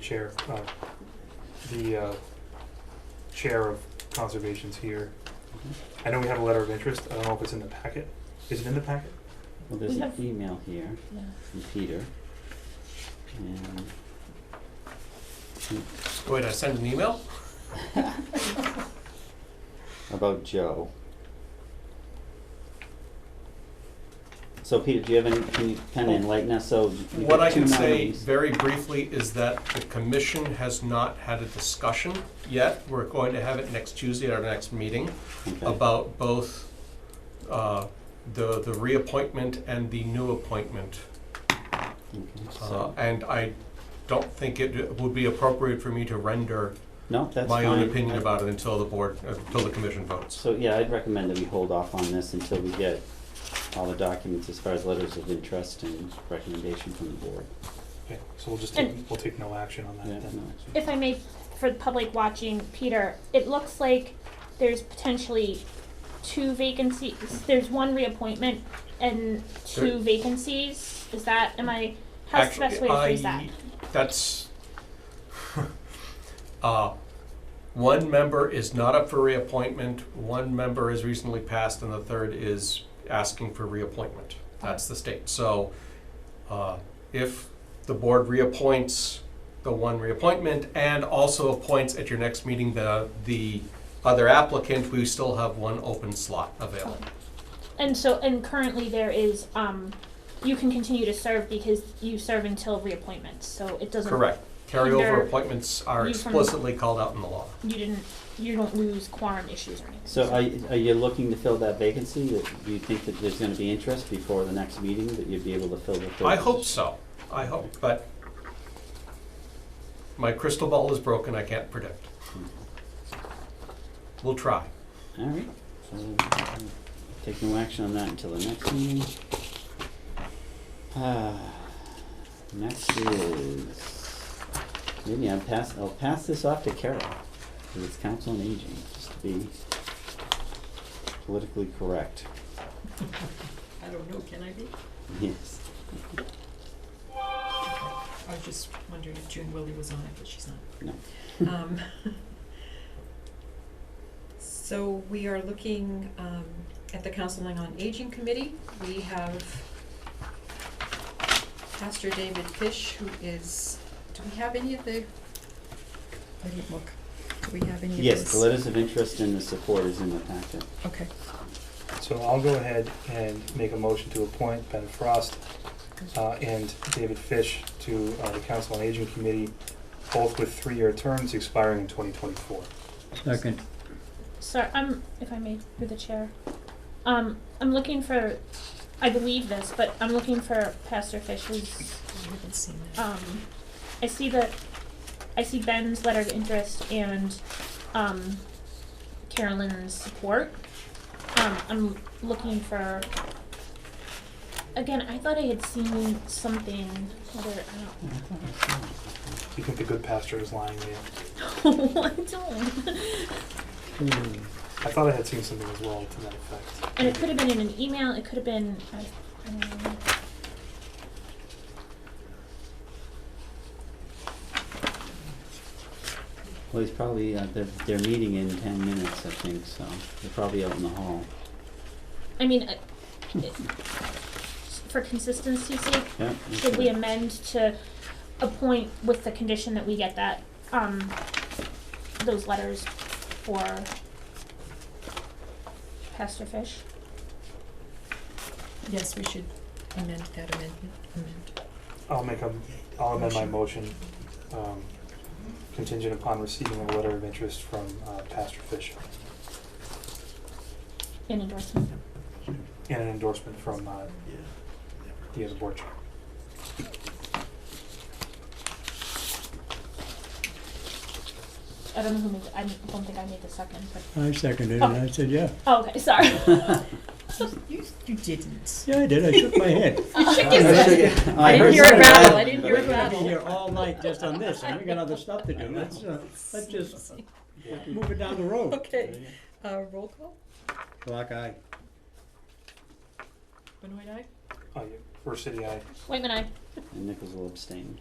chair, uh, the uh, chair of conservation's here. I know we have a letter of interest, I don't know if it's in the packet, is it in the packet? Well, there's We an have- email here Yeah. from Peter. And Wait, I sent an email? about Joe. So Peter, do you have any, can you kind of enlighten us? So you Oh, What I got two can say nominees. very briefly is that the commission has not had a discussion yet. We're going to have it next Tuesday at our next meeting Okay. about both uh, the, the reappointment and the new appointment. Okay, Uh, so, And I don't think it would be appropriate for me to render no, that's my own fine. opinion I- about it until the board, until the commission votes. So, yeah, I'd recommend that we hold off on this until we get all the documents as far as letters of interest and recommendation from the board. Okay, so we'll just take, And- we'll take no action on that Yeah, no, then. actually. If I may, for the public watching, Peter, it looks like there's potentially two vacancies, there's one reappointment and two There- vacancies, is that, am I, how's the Actu- best way to phrase that? I- That's, uh, one member is not up for reappointment, one member is recently passed, and the third is asking for reappointment. That's the state. So, uh, if the board reappoints the one reappointment and also appoints at your next meeting the, the other applicant, we still have one open slot available. And so, and currently there is, um, you can continue to serve because you serve until reappointments, so it doesn't, Correct. Under- Carryover appointments are you from- explicitly called out in the law. you didn't, you don't lose quorum issues or anything. So are, y- are you looking to fill that vacancy? That- Do you think that there's gonna be interest before the next meeting that you'd be able to fill the third? I hope position? so. I hope, but my crystal ball is broken. I can't predict. We'll try. All right, so uh, take no action on that until the next meeting. Ah, Next is, maybe I'll pass, I'll pass this off to Carol, because it's council on aging, just to be politically correct. I don't know, can I be? Yes, I was just wondering if June Willie was on it, but she's no, not. Um, So we are looking um, at the Counseling on Aging Committee. We have Pastor David Fish, who is, do we have any of the, I didn't look. Do we have any of this? yes, the letters of interest and the support is in the packet. Okay. So I'll go ahead and make a motion to appoint Ben Frost uh, and David Fish to uh, the Council on Aging Committee, both with three-year terms expiring in twenty twenty-four. Second. Sir, I'm, if I may, through the chair, um, I'm looking for, I believe this, but I'm looking for Pastor Fish's, I haven't seen that. um, I see the, I see Ben's letter of interest and, um, Carolyn's support. Um, I'm looking for, again, I thought I had seen something, whether, I You think the good pastor is lying there? don't, I don't. Hmm. I thought I had seen something as well to that effect. And it could have been in an email, it could have been, I, I don't know. Well, he's probably, uh, they're, they're meeting in ten minutes, I think, so, they're probably out in the hall. I mean, I- it- for consistency's sake, Yeah. should we okay. amend to appoint with the condition that we get that, um, those letters for Pastor Fish? Yes, we should amend that amendment, amend. I'll make a, I'll amend my motion, um, contingent upon receiving a letter of interest from uh, Pastor Fish In endorsement. and an endorsement from uh, the other board chair. I don't know who made, I don't think I made the second, but, I seconded it, and I said, yeah. oh, okay, sorry. You, you didn't. Yeah, I did, I shook my head. Oh, I heard didn't hear it something. rattle, I didn't hear We're it gonna be rattle. here all night just on this, and we got other stuff to do. Let's, uh, let's just move it down the road. Okay, uh, roll call? Black eye. Benoit, aye? Oh, yeah, First city, I, Wait a minute, And Nichols will abstain.